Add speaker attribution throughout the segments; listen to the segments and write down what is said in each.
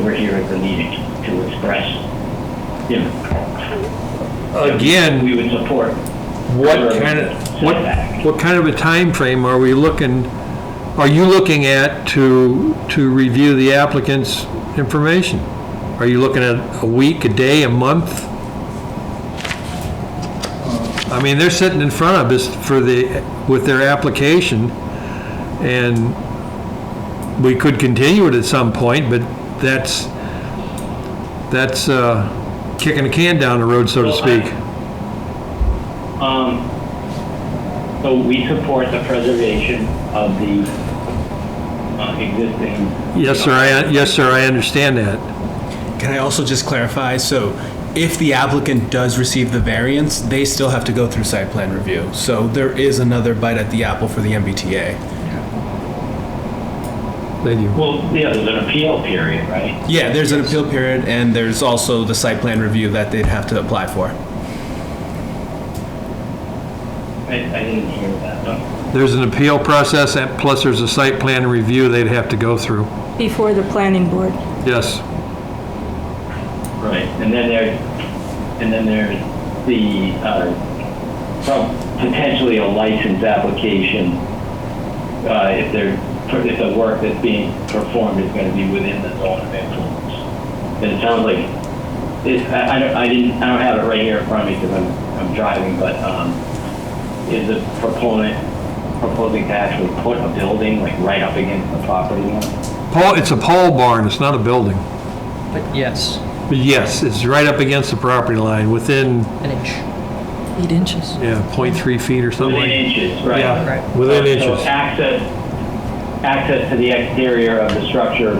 Speaker 1: member here at the meeting to express, you know,
Speaker 2: Again,
Speaker 1: we would support.
Speaker 2: what kind of, what, what kind of a time frame are we looking, are you looking at to, to review the applicant's information? Are you looking at a week, a day, a month?
Speaker 1: Uh,
Speaker 2: I mean, they're sitting in front of us for the, with their application, and we could continue it at some point, but that's, that's uh, kicking a can down the road, so to
Speaker 1: Well, I-
Speaker 2: speak.
Speaker 1: Um, so we support the preservation of the uh, existing.
Speaker 2: Yes, sir, I, yes, sir, I understand that.
Speaker 3: Can I also just clarify? So if the applicant does receive the variance, they still have to go through site plan review. So there is another bite at the apple for the MBTA.
Speaker 2: Thank you.
Speaker 1: Well, yeah, there's an appeal period, right?
Speaker 3: Yeah, there's an appeal period and there's also the site plan review that they'd have to apply for.
Speaker 1: I, I didn't hear that, but.
Speaker 2: There's an appeal process, and plus there's a site plan review they'd have to go through.
Speaker 4: before the planning board.
Speaker 2: Yes,
Speaker 1: Right, and then there, and then there's the, uh, prob- potentially a license application, uh, if there, if the work that's being performed is gonna be within the zone of influence. And it sounds like, it, I, I don't, I didn't, I don't have it right here in front of me because I'm, I'm driving, but, um, is the proponent proposing to actually put a building like right up against the property line?
Speaker 2: Paul, it's a pole barn, it's not a building.
Speaker 5: But yes,
Speaker 2: But yes, it's right up against the property line, within,
Speaker 5: an inch.
Speaker 4: Eight inches.
Speaker 2: yeah, .3 feet or something
Speaker 1: Within
Speaker 2: like.
Speaker 1: inches, right?
Speaker 2: Yeah,
Speaker 5: Right.
Speaker 2: Within
Speaker 1: So
Speaker 2: inches.
Speaker 1: access, access to the exterior of the structure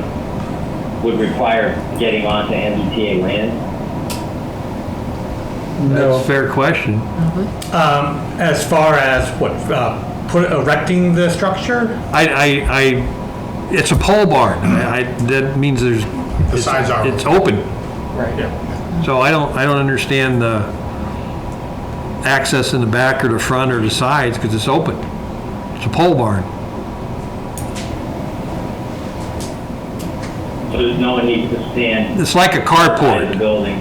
Speaker 1: would require getting onto MBTA land?
Speaker 2: That's a fair question.
Speaker 6: Um, as far as what, uh, put, erecting the structure?
Speaker 2: I, I, I, it's a pole barn. I, I- that means there's. The
Speaker 6: sides are-
Speaker 2: It's open.
Speaker 5: Right.
Speaker 2: So I don't, I don't understand the access in the back or the front or the sides, because it's open. It's a pole barn.
Speaker 1: So there's no one needs to stand
Speaker 2: It's like a
Speaker 1: outside of the
Speaker 2: carport.
Speaker 1: building?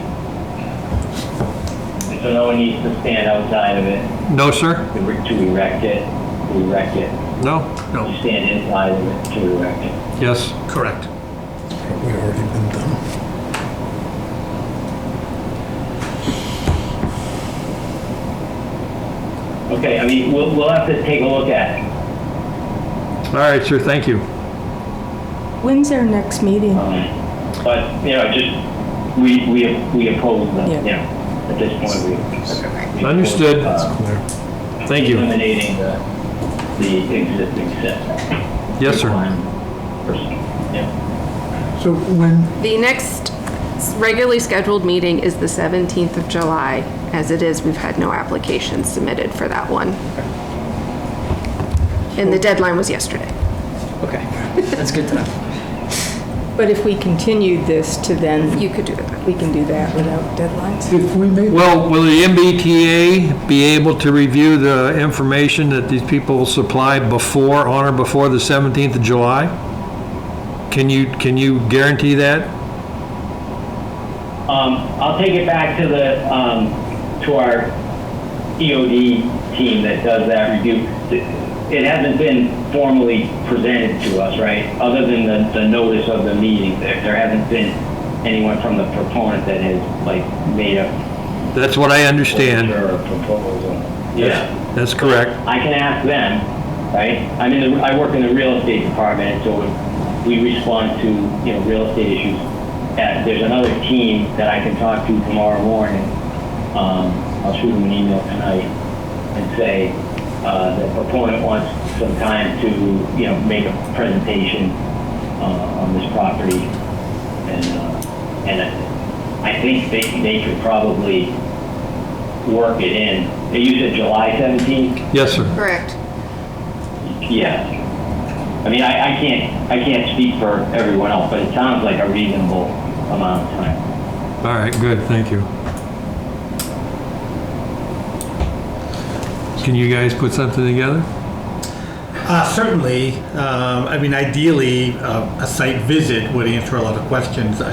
Speaker 1: And So no one needs to stand outside of it
Speaker 2: No, sir?
Speaker 1: to re- to erect it, to erect it,
Speaker 2: No?
Speaker 1: to stand inside of it to erect it?
Speaker 2: Yes.
Speaker 6: Correct.
Speaker 1: Okay, I mean, we'll, we'll have to take a look at it.
Speaker 2: All right, sir, thank you.
Speaker 4: When's our next meeting?
Speaker 1: Um, But, you know, just, we, we, we oppose them, you know, at this point, we. we oppose,
Speaker 2: Understood.
Speaker 1: uh,
Speaker 2: Thank you.
Speaker 1: Eliminating the, the existing setback.
Speaker 2: Yes, sir.
Speaker 1: Requirement. Yeah.
Speaker 7: So when,
Speaker 8: The next regularly scheduled meeting is the 17th of July. As it is, we've had no applications submitted for that one. And the deadline was yesterday.
Speaker 5: Okay, that's good to know.
Speaker 4: But if we continued this to then,
Speaker 8: You could do that.
Speaker 4: we can do that without deadlines.
Speaker 7: if we made,
Speaker 2: Well, will the MBTA be able to review the information that these people supply before, on or before the 17th of July? Can you, can you guarantee that?
Speaker 1: Um, I'll take it back to the, um, to our EOD team that does that review. It hasn't been formally presented to us, right? Other than the, the notice of the meeting, there, there hasn't been anyone from the proponent that has, like, made a
Speaker 2: That's what I understand.
Speaker 1: Or a proposal. Yeah.
Speaker 2: That's correct.
Speaker 1: I can ask them, right? I'm in the, I work in the real estate department, so we respond to, you know, real estate issues. Uh, there's another team that I can talk to tomorrow morning. Um, I'll shoot them an email tonight and say, uh, the proponent wants some time to, you know, make a presentation, uh, on this property. And, uh, and I I think they, they could probably work it in. You said July 17th?
Speaker 2: Yes, sir.
Speaker 8: Correct.
Speaker 1: Yeah. I mean, I, I can't, I can't speak for everyone else, but it sounds like a reasonable amount of time.
Speaker 2: All right, good, thank you. Can you guys put something together?
Speaker 6: Uh, certainly, um, I mean, ideally, uh, a site visit would answer a lot of questions.